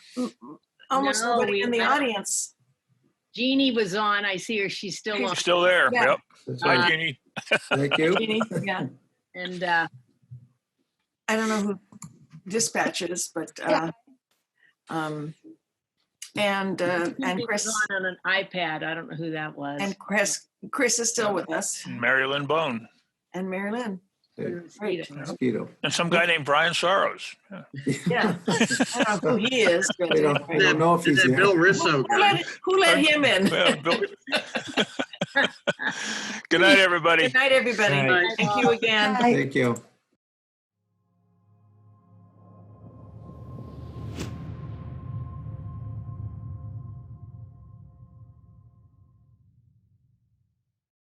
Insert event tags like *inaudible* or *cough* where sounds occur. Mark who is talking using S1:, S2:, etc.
S1: almost
S2: No,
S1: nobody
S2: we-
S1: in the audience.
S2: Jeannie was on. I see her. She's still on.
S3: She's still there.
S1: Yeah.
S3: Yep.
S4: That's
S3: Hi,
S4: right.
S3: Jeannie.
S4: Thank you.
S1: *laughs* Jeannie, yeah.
S2: And uh,
S1: I don't know who dispatch is, but, uh, um, and, uh, and
S2: Cindy was
S1: Chris,
S2: on on an iPad. I don't know who that was.
S1: and Chris, Chris is still with us
S3: Marilyn Bone.
S1: and Mary Lynn.
S2: Couldn't see
S1: Right.
S2: them.
S4: Mosquito.
S3: And some guy named Brian Sorrows. Yeah.
S4: *laughs*
S1: Yeah. *laughs* I don't know who he is. but-
S4: We don't, we don't know if
S5: Is
S4: he's
S5: that
S4: there.
S5: Bill Russo
S1: Who
S5: guy?
S1: let- Who let him in?
S3: Well, Bill- *laughs* Good night, everybody.
S1: Good night, everybody.
S5: Night.
S1: Thank you again.
S4: Thank you.